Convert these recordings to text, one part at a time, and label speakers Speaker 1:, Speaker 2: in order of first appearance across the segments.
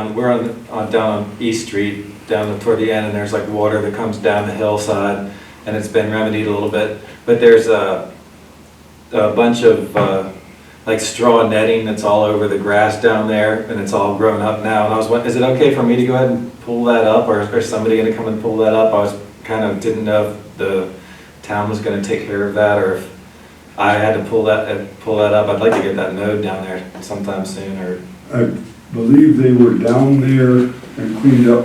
Speaker 1: Um, We're on, on down on East Street, down toward the end, and there's like water that comes down the hillside, and it's been remedied a little bit, but there's a, a bunch of, uh, like straw netting that's all over the grass down there, and it's all grown up now, and I was, wondering, is it okay for me to go ahead and pull that up, or is somebody gonna come and pull that up? I was, kind of didn't know if the town was gonna take care of that, or if I had to pull that, uh, pull that up, I'd like to get that node down there sometime soon, or,
Speaker 2: I believe they were down there and cleaned up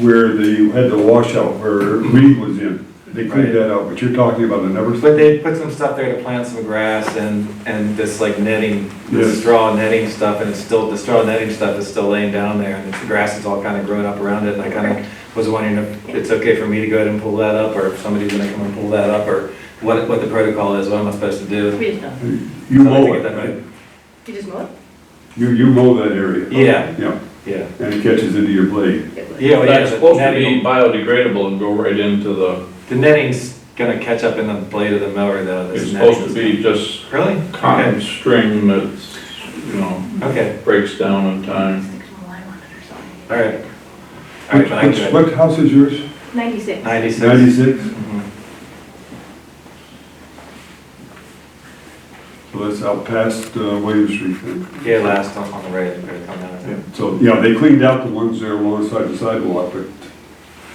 Speaker 2: where they had the washout where weed was in. They
Speaker 1: Right.
Speaker 2: cleaned that out, but you're talking about another
Speaker 1: But
Speaker 2: side?
Speaker 1: they put some stuff there to plant some grass and, and this like netting, this
Speaker 2: Yes.
Speaker 1: straw netting stuff, and it's still, the straw netting stuff is still laying down there, and the grass is all kind of growing up around it, and I kind of was wondering if it's okay for me to go ahead and pull that up, or if somebody's gonna come and pull that up, or what, what the protocol is, what am I supposed to do?
Speaker 3: We just don't.
Speaker 2: You
Speaker 1: Something
Speaker 2: mow
Speaker 1: to get
Speaker 2: it,
Speaker 1: that
Speaker 2: right?
Speaker 1: right.
Speaker 3: You just mow it?
Speaker 2: You, you mow that area?
Speaker 1: Yeah,
Speaker 2: Yeah,
Speaker 1: yeah.
Speaker 2: and it catches into your blade.
Speaker 1: Yeah, well, yeah,
Speaker 4: That's
Speaker 1: the
Speaker 4: supposed to be
Speaker 1: netting,
Speaker 4: biodegradable and go right into the,
Speaker 1: the netting's gonna catch up in the blade of the mower though. this
Speaker 4: it's
Speaker 1: netting.
Speaker 4: supposed to be just
Speaker 1: Really?
Speaker 4: cotton
Speaker 1: Okay,
Speaker 4: string that's, you know,
Speaker 1: okay,
Speaker 4: breaks down in time.
Speaker 3: Six mile line on it or something.
Speaker 1: all right. All
Speaker 2: Which,
Speaker 1: right, but I
Speaker 2: which,
Speaker 1: can,
Speaker 2: what house is yours?
Speaker 3: Ninety-six.
Speaker 1: ninety-six.
Speaker 2: Ninety-six?
Speaker 1: Mhm.
Speaker 2: So that's out past uh, William Street then.
Speaker 1: Yeah, last on, on the right, it's gonna come down, I think.
Speaker 2: So, yeah, they cleaned out the ones there alongside the sidewalk, but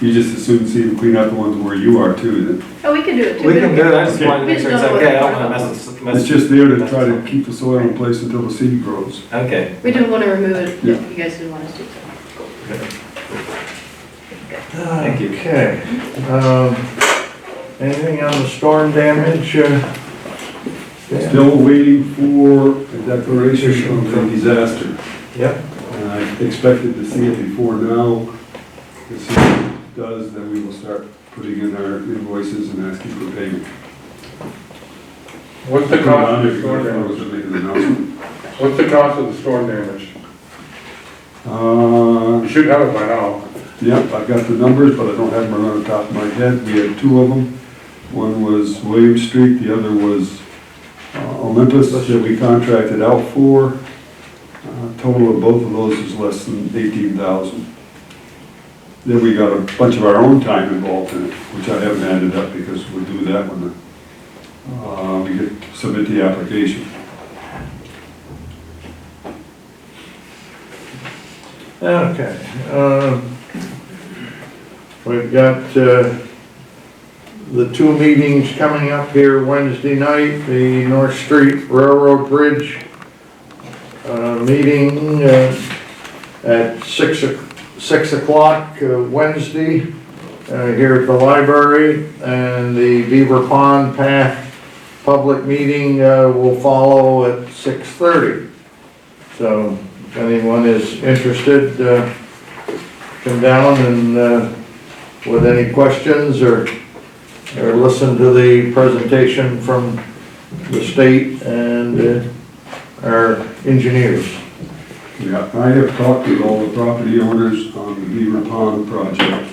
Speaker 2: you just as soon see them clean out the ones where you are too. then.
Speaker 3: Oh, we can do it too.
Speaker 1: We can do it, I just
Speaker 2: Okay.
Speaker 1: wanted to make sure it's okay, I don't wanna mess this,
Speaker 2: It's
Speaker 1: mess.
Speaker 2: just there to try to keep the soil in place until the seed grows.
Speaker 1: Okay.
Speaker 3: We didn't want to remove it,
Speaker 2: Yeah.
Speaker 3: if you guys didn't want us to. so.
Speaker 1: Thank you.
Speaker 5: Okay, um, anything on the storm damage? uh, Dan?
Speaker 2: Still waiting for a declaration of the disaster.
Speaker 5: Yep,
Speaker 2: And I expected to see it before now. As soon as it does, then we will start putting in our invoices and asking for payment.
Speaker 6: What's the
Speaker 2: Not
Speaker 6: cost of
Speaker 2: if
Speaker 6: the
Speaker 2: you go
Speaker 6: storm
Speaker 2: down,
Speaker 6: damage?
Speaker 2: we'll make an announcement.
Speaker 6: What's the cost of the storm damage?
Speaker 2: Uh,
Speaker 6: You should have it by now.
Speaker 2: Yep, I've got the numbers, but I don't have them right on top of my head. We had two of them. One was William Street, the other was uh, Olympus that we contracted out for. Uh, Total of both of those is less than eighteen thousand. Then we got a bunch of our own time involved in it, which I haven't added up because we'll do that when the, uh, we get, submit the application.
Speaker 5: okay, um, we've got, uh, the two meetings coming up here Wednesday night, the North Street Railroad Bridge, uh, meeting, uh, at six, o- six o'clock uh, Wednesday, uh, here at the library, and the Beaver Pond Path public meeting uh, will follow at 6:30. So if anyone is interested, uh, come down and uh, with any questions or, or listen to the presentation from the state and uh, our engineers.
Speaker 2: Yeah, I have talked with all the property owners on the Beaver Pond project.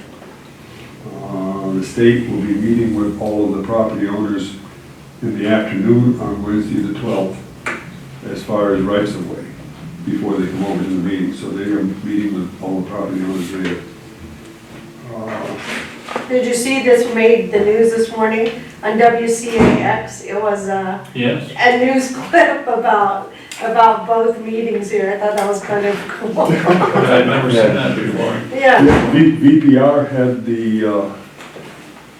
Speaker 2: Uh, The state will be meeting with all of the property owners in the afternoon on Wednesday the 12th as far as rights of way before they come over to the meeting. So they are meeting with all the property owners there. Uh,
Speaker 7: Did you see this made the news this morning on WCAX? It was a,
Speaker 4: Yes.
Speaker 7: a news clip about, about both meetings here. I thought that was kind of cool.
Speaker 4: I've never seen that before.
Speaker 7: Yeah,
Speaker 2: yeah, V- VPR had the uh,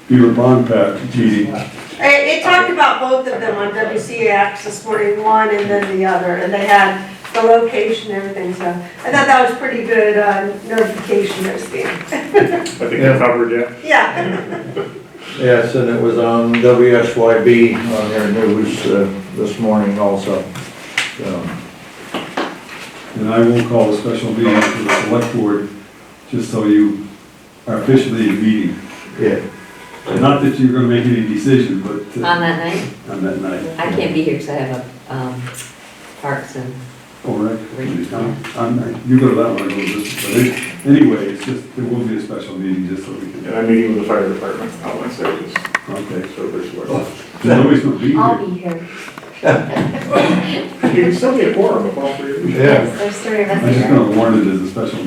Speaker 2: Beaver Pond Pact meeting.
Speaker 7: it, it talked about both of them on WCAX this morning, one and then the other. And they had the location and everything, so I thought that was pretty good uh, notification that was being.
Speaker 6: I think
Speaker 5: Yeah.
Speaker 6: covered it.
Speaker 7: Yeah,
Speaker 5: Yes, and it was on WSYB on their news uh, this morning also. So,
Speaker 2: And I will call a special meeting for the select board, just so you are officially in meeting.
Speaker 5: Yeah,
Speaker 2: Not that you're gonna make any decision, but
Speaker 8: On
Speaker 2: uh,
Speaker 8: that night?
Speaker 2: on that night.
Speaker 8: I can't be here because I have a um, parks and,
Speaker 2: All right, I'm- I'm- you go to that one, I go to this one. But it- Anyway, it's just, there will be a special meeting, just so we can,
Speaker 6: And I'm meeting with the fire department on Wednesday, just
Speaker 2: okay.
Speaker 6: so there's,
Speaker 2: Nobody's gonna be
Speaker 8: I'll
Speaker 2: here.
Speaker 8: be here.
Speaker 9: You can still be a quorum if all three of you.
Speaker 10: Yeah.
Speaker 5: There's three of us
Speaker 2: I'm
Speaker 5: here.
Speaker 2: just gonna warn it as a special